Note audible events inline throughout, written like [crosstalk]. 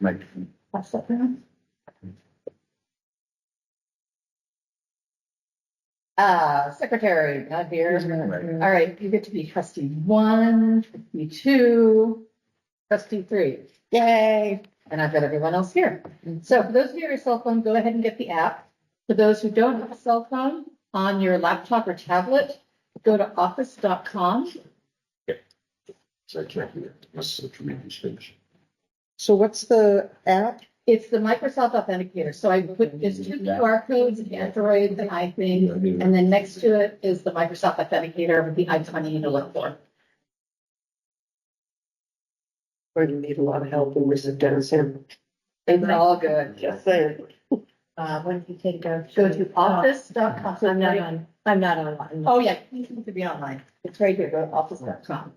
Right. Pass that down. Uh, secretary, not here. All right, you get to be trustee one, trustee two, trustee three. Yay! And I've got everyone else here. So for those of you who have a cell phone, go ahead and get the app. For those who don't have a cell phone, on your laptop or tablet, go to office.com. So I can't hear. This is a tremendous change. So what's the app? It's the Microsoft Authenticator. So I put, there's two QR codes, Android and iPhone. And then next to it is the Microsoft Authenticator with the icon you need to look for. Or you need a lot of help and this is Dennis Sam. It's all good. Just saying. Uh, when you take a. Go to office.com. I'm not on, I'm not online. Oh, yeah, you need to be online. It's right here, go to office.com.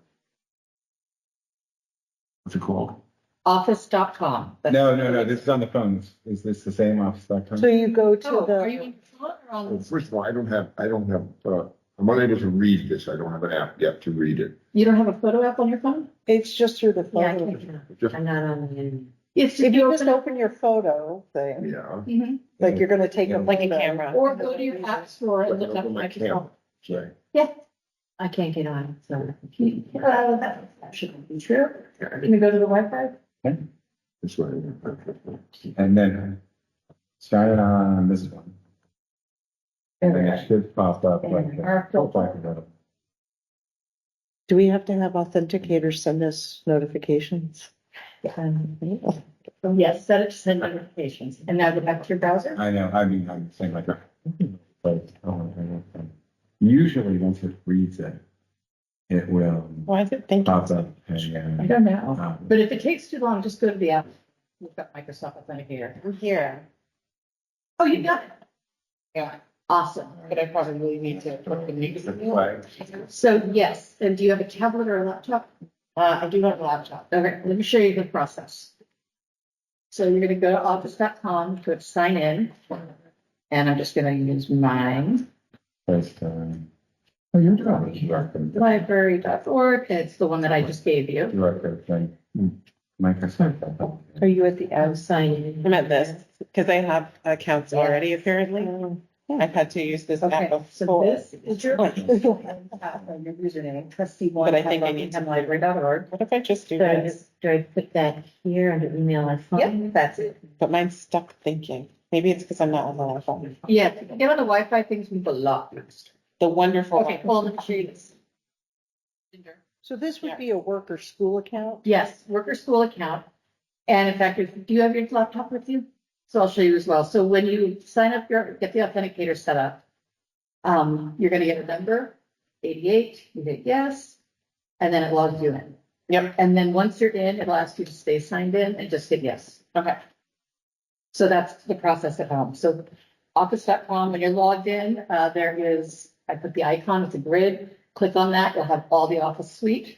What's it called? Office.com. That's- No, no, no, this is on the phones. Is this the same office dot com? So you go to Oh, are you the, in phone or Well, on? first of all, I don't have, I don't have, uh, I'm unable to read this. I don't have an app yet to read it. You don't have a photo app on your phone? it's just through the Oh. Yeah, I photo. can't, Just, I'm not on the internet. It's If you just open your photo thing, yeah. Mhm. like you're gonna take a. Yeah. Like a Or go to your app store and look up Open my Microsoft. camera. Sorry. Yeah. I can't get on, so. Uh, That shouldn't be true. Can you go to the Wi-Fi? This way. Okay. And then start on this one. There And we it go. should pop up like. And our that. Don't filter. talk about it. Do we have to have authenticators send us notifications? Um, Yes, set it to send notifications. And now go back to your browser. I know, I mean, I'm saying like. but, oh, I don't think- Usually, once it reads it, it will Why is it thinking? pop up and, don't know. uh, um, But if it takes too long, just go to the app. We've got Microsoft Authenticator. I'm here. Oh, you got it? Yeah, awesome. But I probably really need it's a to. flag. So yes, and do you have a tablet or a laptop? Uh, I do have a laptop. Okay, let me show you the process. So you're gonna go to office.com, click sign in. And I'm just gonna use mine, First, um, Oh, you're doing it. You are gonna do it. library.org. It's the one that I just gave you. You are good, like, hmm, Microsoft. Are you at the I'm signing in. I'm at this, because I have accounts already apparently. Um, I've had to use this app Okay, so before. this is [laughs] your. Your username, trustee one. But I think I need to- Library.org. What if I just do Do I this? just, do I put that here under email and phone? Yep, that's it. But mine's stuck thinking. Maybe it's because I'm not on the phone. Yeah, if you get on the Wi-Fi, things move a lot faster. The wonderful. Okay, well, let me show you this. So this would be a work or school account? Yes, worker school account. And in fact, if- do you have your laptop with you? So I'll show you as well. So when you sign up, your get the authenticator set up. Um, you're gonna get a number, eighty-eight, you hit yes, and then it logs you in. Yep. And then once you're in, it'll ask you to stay signed in and just hit yes. Okay. So that's the process at home. So office.com, when you're logged in, uh, there is, I put the icon, it's a grid. Click on that, you'll have all the office suite.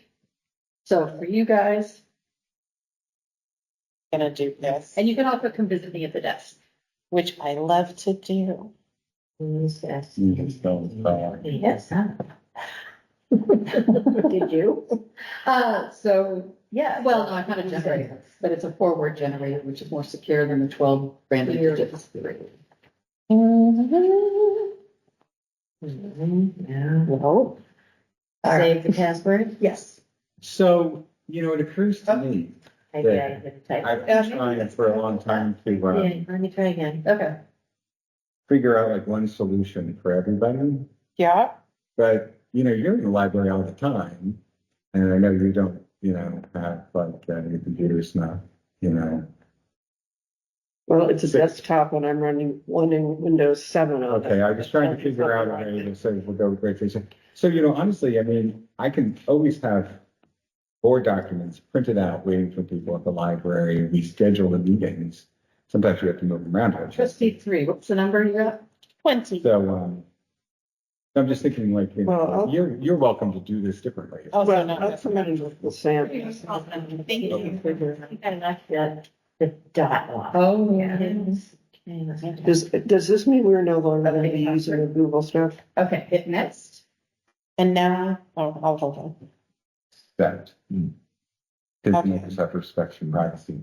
So for you guys, Gonna do this, and you can also come visit me at the desk. which I love to do. Who's that? You can spell it out. Yes. Did you? Uh, so, yeah, well, no, I'm not a generator, but it's a four-word generator, which is more secure than the twelve random digits. Mm-hmm. No. No. Save the password? Yes. So, you know, it occurs to me, I did, I did type. I've been trying for a long time to uh, Yeah, let me try again. Okay. figure out like one solution for everybody. Yeah, But, you know, you're in the library all the time. And I know you don't, you know, have like uh, your computer's not, you know. Well, it's a Six. desktop and I'm running one in Windows seven Oh, on it. Okay, I was trying to figure out a way to say we'll go with great reason. So, you know, honestly, I mean, I can always have board documents printed out waiting for people at the library. We schedule the meetings. Sometimes we have to move them around. don't you? Trustee three, what's the number you got? twenty. So, um, I'm just thinking like, you Well, know, I'll- you're, you're welcome to do this differently. Also Well, not that's this the one. manager with Sam. Thank you. I think I knocked that, the dot off. Oh, Okay. Does, does this mean we're no longer going to be using the Google stuff? Okay, hit next. And now, oh, I'll hold on. That. mm, Because Okay. Microsoft respects your privacy.